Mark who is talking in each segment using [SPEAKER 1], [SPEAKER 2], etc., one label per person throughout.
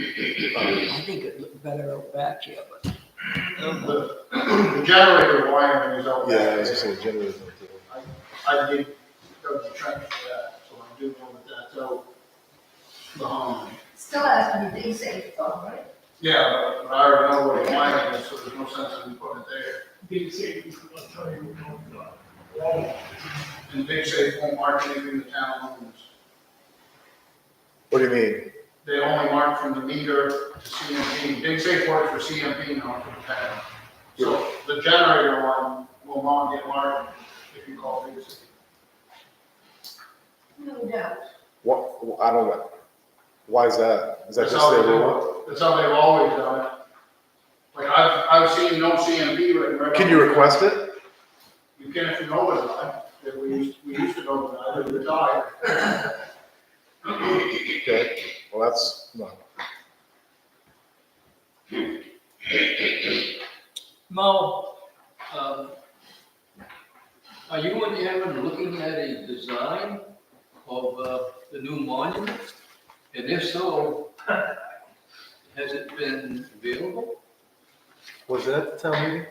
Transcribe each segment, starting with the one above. [SPEAKER 1] I think it looked better out back here, but
[SPEAKER 2] The the generator wiring is out
[SPEAKER 3] Yeah, I
[SPEAKER 2] there.
[SPEAKER 3] was just gonna generate that.
[SPEAKER 2] I did go to trench for that, so I do know that that's out behind.
[SPEAKER 4] Still has to be safe though, right?
[SPEAKER 2] Yeah, but I already know where the wiring is, so there's no sense in putting it there.
[SPEAKER 5] Big savings, I'll tell you, we're going to, uh,
[SPEAKER 2] And Big Safe won't mark anything the town owns.
[SPEAKER 3] What do you mean?
[SPEAKER 2] They only mark from the meter to CMP. Big Safe works for CMP, not for the town. So the generator one will not get marked if you call Big Safe.
[SPEAKER 4] No doubt.
[SPEAKER 3] What, I don't know. Why is that? Is that
[SPEAKER 2] That's
[SPEAKER 3] just
[SPEAKER 2] how
[SPEAKER 3] their
[SPEAKER 2] they do
[SPEAKER 3] rule?
[SPEAKER 2] it. That's how they've always done it. Like, I've, I've seen no CMP written right.
[SPEAKER 3] Can
[SPEAKER 2] on
[SPEAKER 3] you
[SPEAKER 2] it.
[SPEAKER 3] request it?
[SPEAKER 2] You can if you know it, I, that we used, we used to know that, I retired.
[SPEAKER 3] Okay, well, that's, no.
[SPEAKER 1] Mo, um, are you and Aaron looking at a design of, uh, the new monument? And if so, has it been available?
[SPEAKER 3] Was it at the town meeting?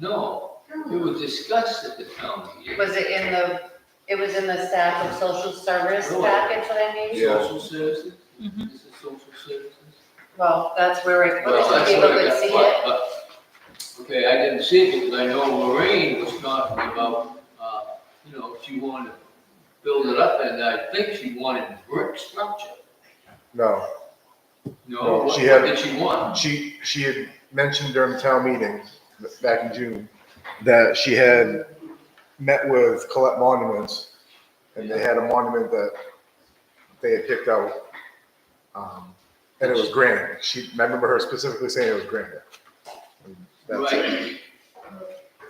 [SPEAKER 1] No, it was discussed at the town meeting.
[SPEAKER 6] Was it in the, it was in the staff of social service
[SPEAKER 1] Really?
[SPEAKER 6] package that I made?
[SPEAKER 3] Yeah.
[SPEAKER 1] Social services, this is social services.
[SPEAKER 6] Well, that's where it,
[SPEAKER 1] Well,
[SPEAKER 6] so
[SPEAKER 1] that's
[SPEAKER 6] people
[SPEAKER 1] what I
[SPEAKER 6] could
[SPEAKER 1] got,
[SPEAKER 6] see it.
[SPEAKER 1] but- but- Okay, I didn't see it because I know Lorraine was talking about, uh, you know, she wanted to build it up and I think she wanted brick structure.
[SPEAKER 3] No, No,
[SPEAKER 1] No, what
[SPEAKER 3] she had-
[SPEAKER 1] what did she want?
[SPEAKER 3] she, she had mentioned during town meeting back in June that she had met with Colette Monuments and they had a monument that they had picked out. Um, and it was granite. She, I remember her specifically saying it was granite. And That's it.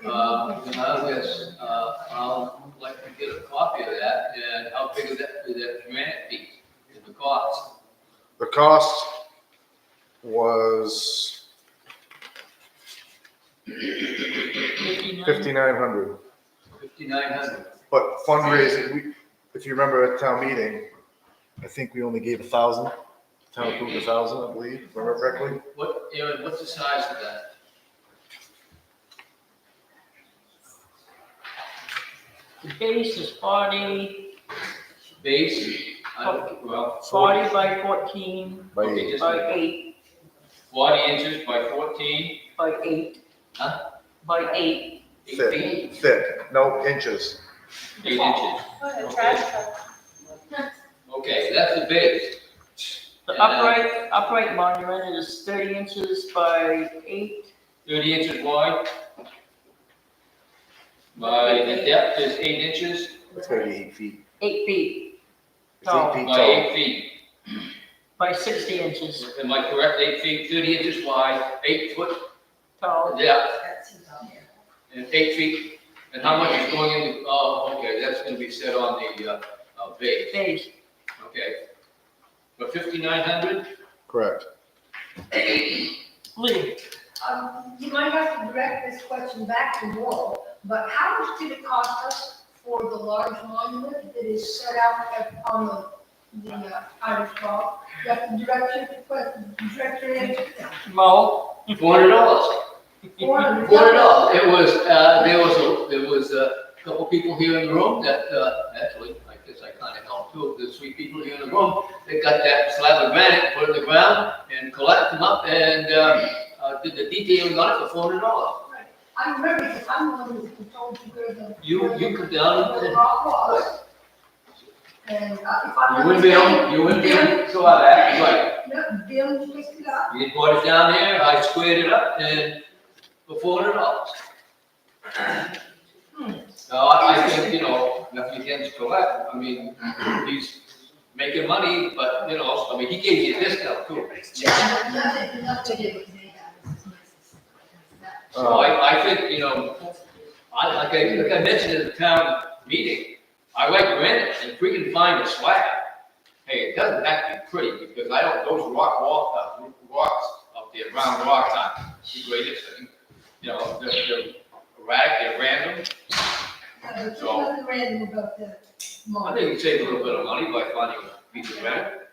[SPEAKER 1] Right. Uh, and I guess, uh, I'll like to get a copy of that and how big is that, is that granite piece and the cost?
[SPEAKER 3] The cost was fifty-nine hundred,
[SPEAKER 1] Fifty-nine hundred.
[SPEAKER 3] but fundraising, we, if you remember at town meeting, I think we only gave a thousand. Town approved a thousand, I believe, if I remember correctly.
[SPEAKER 1] What, Aaron, what's the size of that?
[SPEAKER 7] The base is forty,
[SPEAKER 1] Base, I don't, well,
[SPEAKER 7] forty by fourteen,
[SPEAKER 3] By
[SPEAKER 1] okay, just
[SPEAKER 7] by eight,
[SPEAKER 1] forty inches by fourteen,
[SPEAKER 7] by eight.
[SPEAKER 1] Huh?
[SPEAKER 7] By eight.
[SPEAKER 1] eight
[SPEAKER 3] Thick.
[SPEAKER 1] feet.
[SPEAKER 3] thick, no inches.
[SPEAKER 1] Eight inches,
[SPEAKER 6] Oh, the trash truck.
[SPEAKER 1] okay, that's the base.
[SPEAKER 7] The
[SPEAKER 1] And then
[SPEAKER 7] upright, upright monument is thirty inches by eight,
[SPEAKER 1] Thirty inches wide. By, the depth is eight inches
[SPEAKER 3] It's gonna be eight feet.
[SPEAKER 7] eight feet
[SPEAKER 3] It's eight feet
[SPEAKER 1] by
[SPEAKER 3] tall.
[SPEAKER 1] eight feet,
[SPEAKER 7] by sixty inches
[SPEAKER 1] am I correct, eight feet, thirty inches wide, eight foot
[SPEAKER 7] tall.
[SPEAKER 1] depth,
[SPEAKER 4] That's about it.
[SPEAKER 1] and eight feet, and how much is going in, the- oh, okay, that's gonna be set on the, uh, uh, base,
[SPEAKER 7] Base,
[SPEAKER 1] okay. For fifty-nine hundred,
[SPEAKER 3] Correct.
[SPEAKER 7] Lee,
[SPEAKER 4] Um, you might have to direct this question back to Wall, but how much did it cost us for the large monument that is set out at, on the, the, uh, Irish Hall? You have to direct your question, direct your answer
[SPEAKER 7] Mo.
[SPEAKER 1] four hundred dollars,
[SPEAKER 4] Four hundred
[SPEAKER 1] four hundred dollars, it was, uh, there was, a there was a couple people here in the room that, uh, actually, I guess I kinda helped too, there's three people here in the room, they got that slab of granite, put it in the ground, and collect them up, and, uh, uh, did the detailing on it for four hundred dollars.
[SPEAKER 4] I remember, because I'm the one who told you where the.
[SPEAKER 1] You, you come down
[SPEAKER 4] where the
[SPEAKER 1] and
[SPEAKER 4] rock was. And, uh, if I'm.
[SPEAKER 1] you wouldn't be able, you wouldn't be able to go out that way.
[SPEAKER 4] No, Bill picked it up.
[SPEAKER 1] You brought it down there, I squared it up and for four hundred dollars. So I, I think, you know, nothing against Colette, I mean, he's making money, but, you know, I mean, he gave you a discount too.
[SPEAKER 4] Yeah, nothing, nothing to do with me.
[SPEAKER 1] So I, I think, you know, I, like I, like I mentioned at the town meeting, I like granite, and if we can find a slab, hey, it doesn't have to be pretty, because I don't, those rock wall, uh, rocks up there, round rocks aren't the greatest thing. You know, they're, they're erratic, they're random,
[SPEAKER 4] Uh, There's nothing random about the
[SPEAKER 1] I
[SPEAKER 4] monument.
[SPEAKER 1] think you save a little bit of money by finding a piece of granite.